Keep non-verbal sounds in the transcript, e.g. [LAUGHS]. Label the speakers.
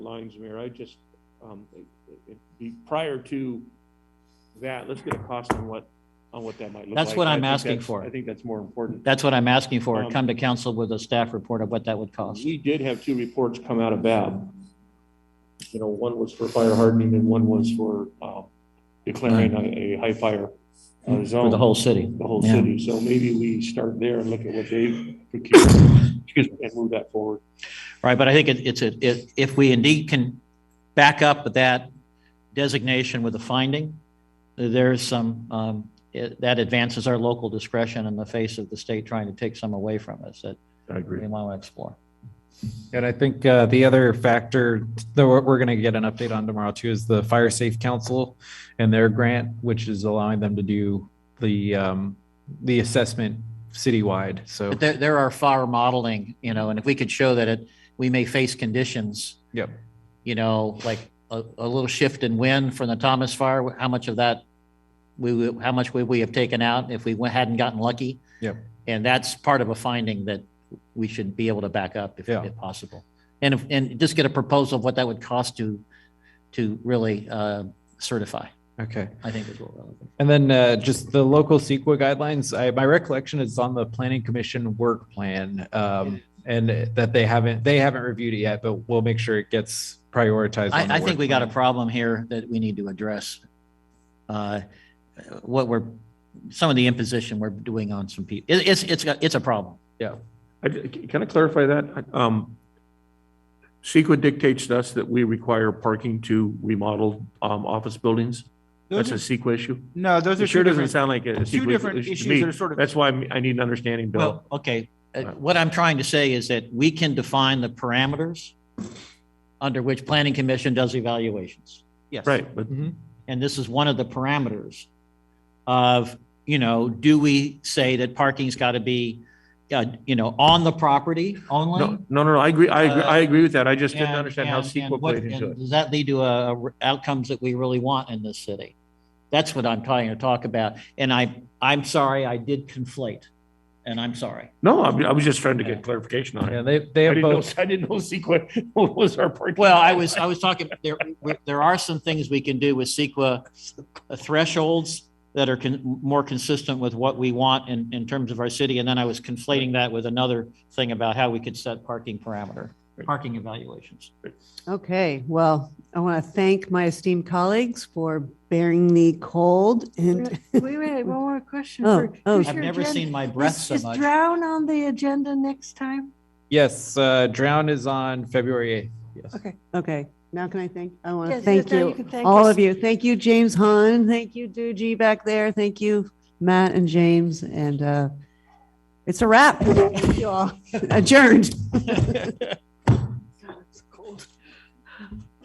Speaker 1: lines, Mayor, I just, um, it- it- be- prior to that, let's get a cost on what, on what that might look like.
Speaker 2: That's what
Speaker 1: I
Speaker 2: I'm
Speaker 1: think
Speaker 2: asking
Speaker 1: that's-
Speaker 2: for.
Speaker 1: I think that's more important.
Speaker 2: That's what I'm asking for.
Speaker 1: Um,
Speaker 2: Come to council with a staff report of what that would cost.
Speaker 1: We did have two reports come out of BAB. You know, one was for fire hardening and one was for, um, declaring a, a high fire uh,
Speaker 2: Mm-hmm. For the
Speaker 1: zone,
Speaker 2: whole city.
Speaker 1: the whole
Speaker 2: yeah.
Speaker 1: city. So maybe we start there and look at what they've procured, excuse me, and move that forward.
Speaker 2: Right, but I think it- it's, a- it- if we indeed can back up that designation with a finding, there's some, um, it- that advances our local discretion in the face of the state trying to take some away from us that
Speaker 1: I agree.
Speaker 2: we want to explore.
Speaker 3: And I think uh, the other factor that we're, we're going to get an update on tomorrow too is the Fire Safe Council and their grant, which is allowing them to do the, um, the assessment citywide. So,
Speaker 2: But there, there are fire modeling, you know, and if we could show that it, we may face conditions.
Speaker 3: Yep.
Speaker 2: You know, like a, a little shift in wind from the Thomas fire, how much of that, we, would- how much would we have taken out if we wa- hadn't gotten lucky?
Speaker 3: Yep.
Speaker 2: And that's part of a finding that we should be able to back up if,
Speaker 3: Yeah.
Speaker 2: if possible. And, if- and just get a proposal of what that would cost to, to really, uh, certify,
Speaker 3: okay.
Speaker 2: I think is what we're looking for.
Speaker 3: And then uh, just the local CEQA guidelines, I, my recollection is on the planning commission work plan. Um, and that they haven't, they haven't reviewed it yet, but we'll make sure it gets prioritized. on the
Speaker 2: I, I
Speaker 3: work
Speaker 2: think we got a
Speaker 3: plan.
Speaker 2: problem here that we need to address. Uh, What we're, some of the imposition we're doing on some people, it, it's, it's, a- it's a problem.
Speaker 1: I- Can I clarify that? Um, CEQA dictates to us that we require parking to remodel um, office buildings. That's
Speaker 4: Those
Speaker 1: a
Speaker 4: are,
Speaker 1: CEQA issue.
Speaker 4: no, those are
Speaker 1: It
Speaker 4: two
Speaker 1: sure doesn't
Speaker 4: different,
Speaker 1: sound like a
Speaker 4: two
Speaker 1: CEQA
Speaker 4: different
Speaker 1: issue to
Speaker 4: issues that are
Speaker 1: me.
Speaker 4: sort of,
Speaker 1: That's why I'm- I need an understanding, Bill.
Speaker 2: Well, okay, uh, what I'm trying to say is that we can define the parameters under which planning commission does evaluations.
Speaker 4: yes.
Speaker 1: Right, but
Speaker 3: Mhm.
Speaker 2: And this is one of the parameters of, you know, do we say that parking's got to be, uh, you know, on the property only?
Speaker 1: no, no, no, I agree, I, agree-
Speaker 4: uh,
Speaker 1: I agree with that. I just didn't
Speaker 2: And-
Speaker 1: understand how
Speaker 2: and- and
Speaker 1: CEQA
Speaker 2: what-
Speaker 1: played into
Speaker 2: and
Speaker 1: it.
Speaker 2: Does that lead to uh, r- outcomes that we really want in this city? That's what I'm trying to talk about. And I, I'm sorry, I did conflate. And I'm sorry.
Speaker 1: No, I I was just trying to get clarification on
Speaker 3: Yeah,
Speaker 1: it.
Speaker 3: they, they
Speaker 1: Mm-hmm. I
Speaker 3: have
Speaker 1: didn't know, [LAUGHS]
Speaker 3: both.
Speaker 1: I didn't know E CEQA [LAUGHS] was our parking.
Speaker 2: Well, I was, I was talking, there, we- there are some things we can do with CEQA thresholds that are con- more consistent with what we want in, in terms of our city. And then I was conflating that with another thing about how we could set parking parameter, parking evaluations.
Speaker 5: Okay, well, I want to thank my esteemed colleagues for bearing the cold [LAUGHS] and
Speaker 6: Wait, wait, wait, one more question.
Speaker 5: Oh,
Speaker 6: for-
Speaker 5: oh.
Speaker 6: who's
Speaker 2: I've
Speaker 6: your
Speaker 2: never
Speaker 6: agenda-
Speaker 2: seen my breath
Speaker 6: is-
Speaker 2: so
Speaker 6: is
Speaker 2: much.
Speaker 6: Drown on the agenda next time?
Speaker 3: Yes, uh, Drown is on February 8th. Yes.
Speaker 6: Okay.
Speaker 5: okay, now can I thank, I want to
Speaker 6: Yes,
Speaker 5: thank
Speaker 6: yes, now
Speaker 5: you,
Speaker 6: can thank
Speaker 5: all
Speaker 6: us.
Speaker 5: of you. Thank you, James Hahn. Thank you, Doogie back there. Thank you, Matt and James. [LAUGHS] And uh, it's a wrap. Thank you all. Adjourned.